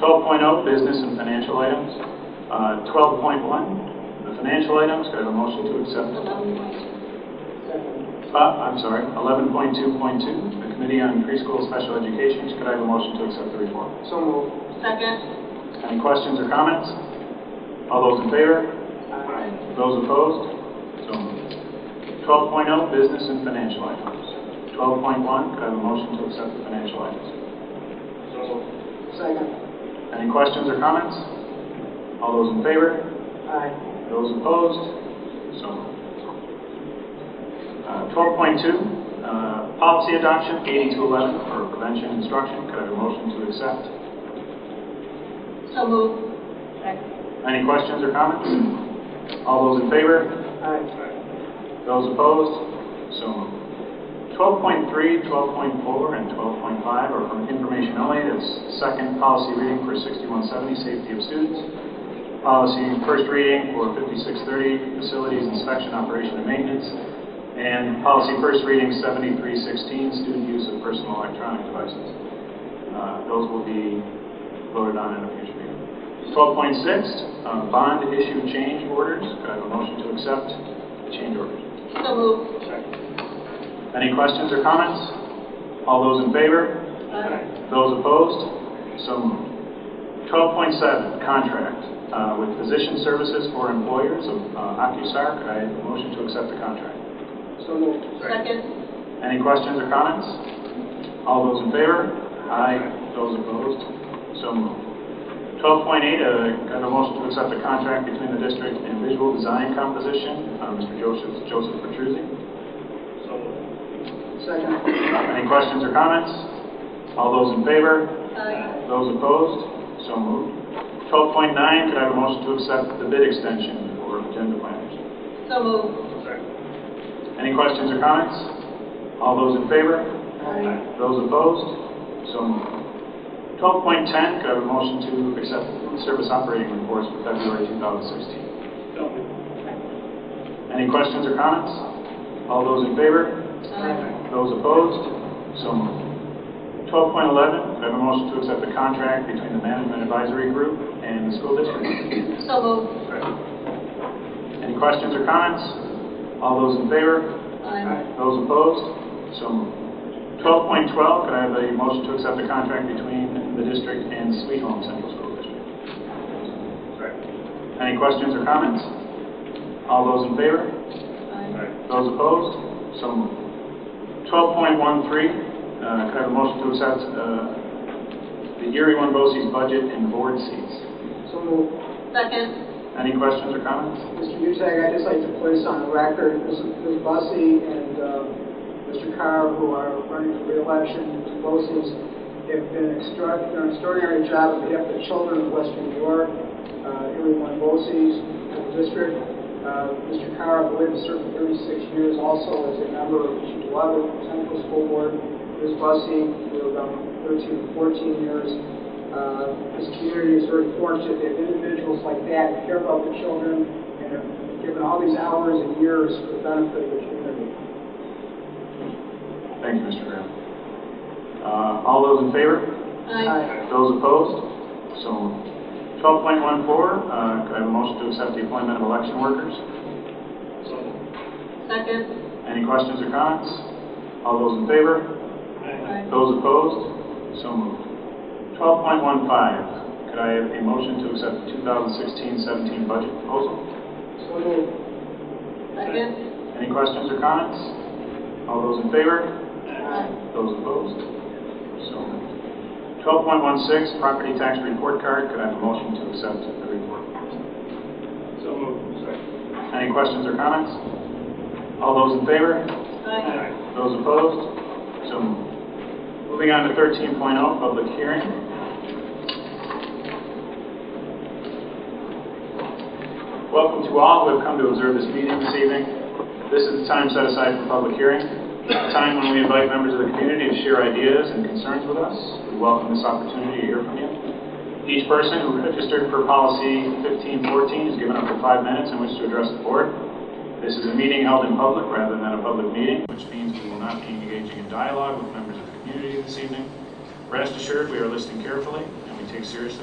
12.0, oh, business and financial items. Uh, 12.1, the financial items, could I have a motion to accept? Uh, I'm sorry, 11.2.2, the Committee on Preschool Special Education, could I have a motion to accept the report? So moved. Second. Any questions or comments? All those in favor? Aye. Those opposed? So moved. 12.0, business and financial items. 12.1, could I have a motion to accept the financial items? So moved. Second. Any questions or comments? All those in favor? Aye. Those opposed? So moved. Uh, 12.2, uh, policy adoption, 8211, for prevention instruction. Could I have a motion to accept? So moved. Second. Any questions or comments? All those in favor? Aye. Those opposed? So moved. 12.3, 12.4, and 12.5 are from information only. That's second policy reading for 6170, safety of students. Policy first reading for 5630, facilities inspection, operation, and maintenance. And policy first reading 7316, student use of personal electronic devices. Uh, Those will be voted on in a future meeting. 12.6, uh, bond issue change orders. Could I have a motion to accept the change orders? So moved. Any questions or comments? All those in favor? Aye. Those opposed? So moved. 12.7, contract uh, with physician services for employers of uh, OcuSar. Could I have a motion to accept the contract? So moved. Second. Any questions or comments? All those in favor? Aye. Those opposed? So moved. 12.8, uh, got a motion to accept the contract between the district and Visual Design Composition, uh, Mr. Joseph Joseph Petruzzi. Second. Any questions or comments? All those in favor? Aye. Those opposed? So moved. 12.9, could I have a motion to accept the bid extension for agenda planners? So moved. Any questions or comments? All those in favor? Aye. Those opposed? So moved. 12.10, could I have a motion to accept the food service operating reports for February 2016? Any questions or comments? All those in favor? Aye. Those opposed? So moved. 12.11, could I have a motion to accept the contract between the Management Advisory Group and the school district? So moved. Any questions or comments? All those in favor? Aye. Those opposed? So moved. 12.12, could I have a motion to accept the contract between the district and Sweet Home Central School District? Any questions or comments? All those in favor? Aye. Those opposed? So moved. 12.13, uh, could I have a motion to accept uh, the Erie One Bose's budget and board seats? So moved. Second. Any questions or comments? Mr. Butag, I'd just like to place on the record, Ms. Ms. Bussey and uh, Mr. Carr, who are running for reelection, Mr. Bossi's, have done an extra- an extraordinary job on behalf of the children of Western New York, uh, everyone Bossi's in the district. Uh, Mr. Carr, I believe, has served 36 years also as a member of the Chihuahua Central School Board. Ms. Bussey, for about 13 or 14 years. Uh, This community is very fortunate to have individuals like that who care about the children and have given all these hours and years for the benefit of the community. Thank you, Mr. Graham. Uh, All those in favor? Aye. Those opposed? So moved. 12.14, uh, could I have a motion to accept the appointment of election workers? Second. Any questions or comments? All those in favor? Aye. Those opposed? So moved. 12.15, could I have a motion to accept the 2016-17 budget proposal? So moved. Second. Any questions or comments? All those in favor? Aye. Those opposed? So moved. 12.16, property tax report card, could I have a motion to accept the report? So moved. Second. Any questions or comments? All those in favor? Aye. Those opposed? So moved. Moving on to 13.0, public hearing. Welcome to all who have come to observe this meeting this evening. This is the time set aside for public hearing, a time when we invite members of the community to share ideas and concerns with us. We welcome this opportunity to hear from you. Each person who registered for policy 1514 is given up to five minutes in which to address the board. This is a meeting held in public rather than a public meeting, which means we will not be engaging in dialogue with members of the community this evening. Rest assured, we are listening carefully, and we take seriously